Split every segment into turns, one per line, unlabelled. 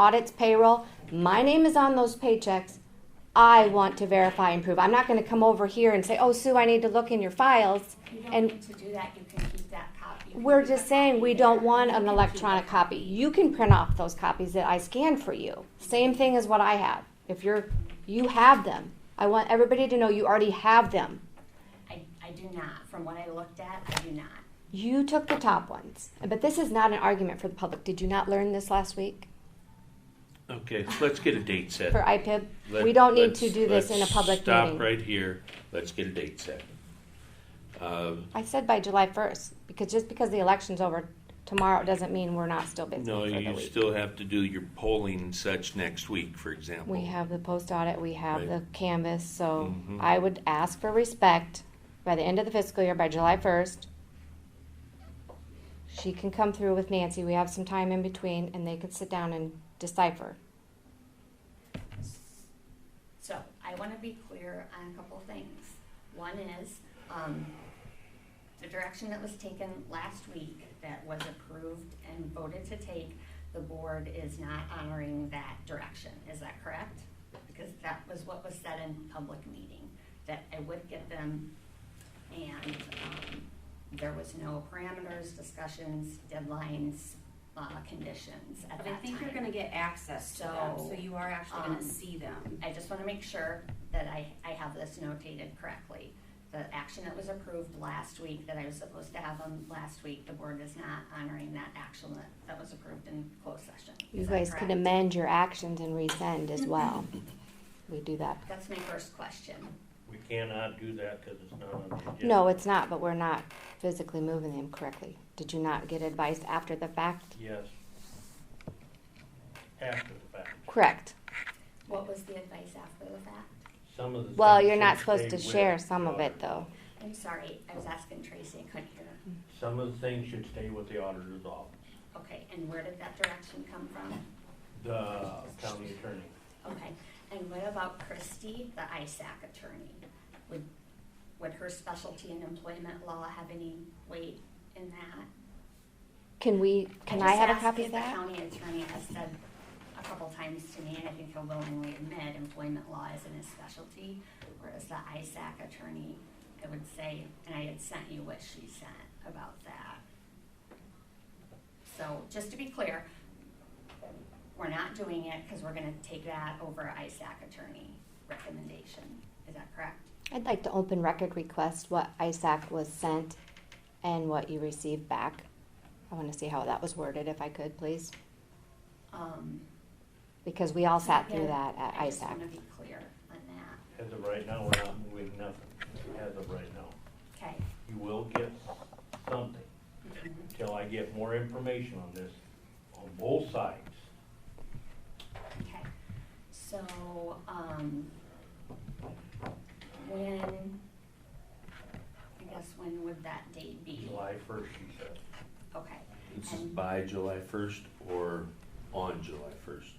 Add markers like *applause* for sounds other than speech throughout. audits payroll. My name is on those paychecks. I want to verify and prove. I'm not gonna come over here and say, oh, Sue, I need to look in your files.
You don't
And-
need to do that, you can keep that copy. You can
We're
keep
just
a
saying,
copy
we
there.
don't want
You
an
can keep
electronic
a
copy. You can print off those copies that I scan for you. Same thing as what I have. If you're, you have them. I want everybody to know you already have them.
I, I do not, from what I looked at, I do not.
You took the top ones. But this is not an argument for the public. Did you not learn this last week
Okay, so let's get a date set.
for IPIB?
Let-
We don't need
let's-
to do this in a
let's
public
Stop
meeting.
right here. Let's get a date set. Um,
I said by July first, because just because the election's over tomorrow doesn't mean we're not still busy
No,
for the
you
week.
still have to do your polling and such next week, for example.
We have the post audit, we have
Right.
the canvas, so
Mhm.
I would ask for respect by the end of the fiscal year, by July first. She can come through with Nancy, we have some time in between, and they could sit down and decipher.
So I want to be clear on a couple of things. One is, um, the direction that was taken last week that was approved and voted to take, the board is not honoring that direction. Is that correct? Because that was what was said in public meeting, that I would get them and, um, there was no parameters, discussions, deadlines, uh, conditions at that
But I
time.
think you're gonna get access to them, so you are actually
Um,
gonna see them.
I just want to make sure that I, I have this notated correctly. The action that was approved last week, that I was supposed to have them last week, the board is not honoring that action that, that was approved in closed session.
You
Is that
guys could
correct?
amend your actions and resend as
*laughs*
well. We do that.
That's my first question.
We cannot do that because it's not on the agenda.
No, it's not, but we're not physically moving them correctly. Did you not get advice after the fact?
Yes. After the fact.
Correct.
What was the advice after the fact?
Some of the.
Well, you're not
things
supposed
they
to share
with
some
the
of it,
auditor.
though.
I'm sorry, I was asking Tracy, I couldn't hear.
Some of the things should stay with the auditor's office,
Okay, and where did that direction come from?
the county attorney.
Okay, and what about Christie, the ISAC attorney? Would, would her specialty in employment law have any weight in that?
Can we, can I
just
have a
asked
copy
if
of that?
The county attorney has said a couple times to me, and I think he'll willingly admit, employment law isn't his specialty, whereas the ISAC attorney, I would say, and I had sent you what she sent about that. So, just to be clear, we're not doing it because we're gonna take that over ISAC attorney recommendation, is that correct?
I'd like to open record request what ISAC was sent and what you received back. I want to see how that was worded, if I could, please,
Um,
because we all sat through
Yeah,
that at
I just wanna
ISAC.
be clear on that,
As of right now, we're not moving nothing, as of right now.
okay?
You will get something until I get more information on this, on both sides.
Okay, so, um, when, I guess when would that date be?
July first, she said.
Okay,
This is by July first or on July first?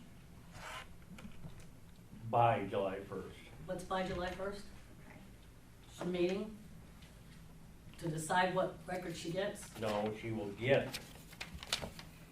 By July first.
What's by July first?
okay,
A meeting? To decide what record she gets?
No, she will get,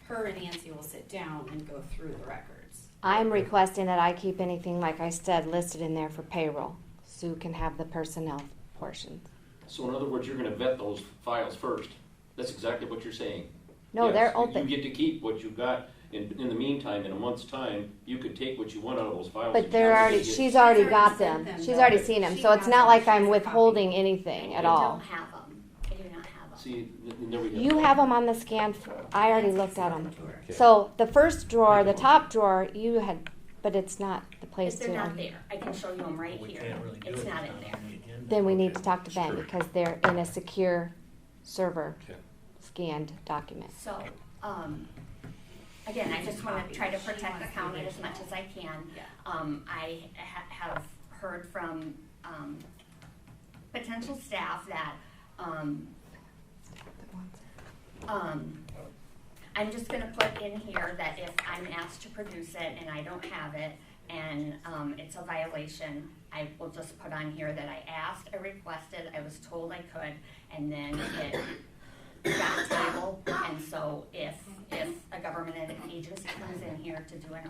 Her and Nancy will sit down and go through the records.
I'm requesting that I keep anything, like I said, listed in there for payroll. Sue can have the personnel portions.
So in other words, you're gonna vet those files first. That's exactly what you're saying.
No,
Yes,
they're
you-
open.
You get to keep what you've got. In, in the meantime, in a month's time, you can take what you want out of those files.
But
and
they're
you're
already,
gonna get-
she's already
already
got them.
sent them,
She's
though.
already seen them,
She
so it's
has
not
them.
like
She has
I'm
a copy.
withholding anything at
I
all.
don't have them, I do not have them.
See, th- th- there we go.
You have them on the scan, f- I already looked at them.
Okay.
So the first drawer, the top drawer, you had, but it's not the place
If
to.
they're not there, I can show you them right
we
here,
can't really do it.
it's not in
on
there.
the agenda.
Then we need
Okay.
to talk to Ben
Sure.
because they're in a secure server
Okay.
scanned document.
So, um, again, I just wanna try to protect the county as much as I can.
Yeah.
Um, I ha- have heard from, um, potential staff that, um, um, I'm just gonna put in here that if I'm asked to produce it and I don't have it, and, um, it's a violation, I will just put on here that I asked, I requested, I was told I could, and then it got tabled, and so if, if a government agency comes in here to do an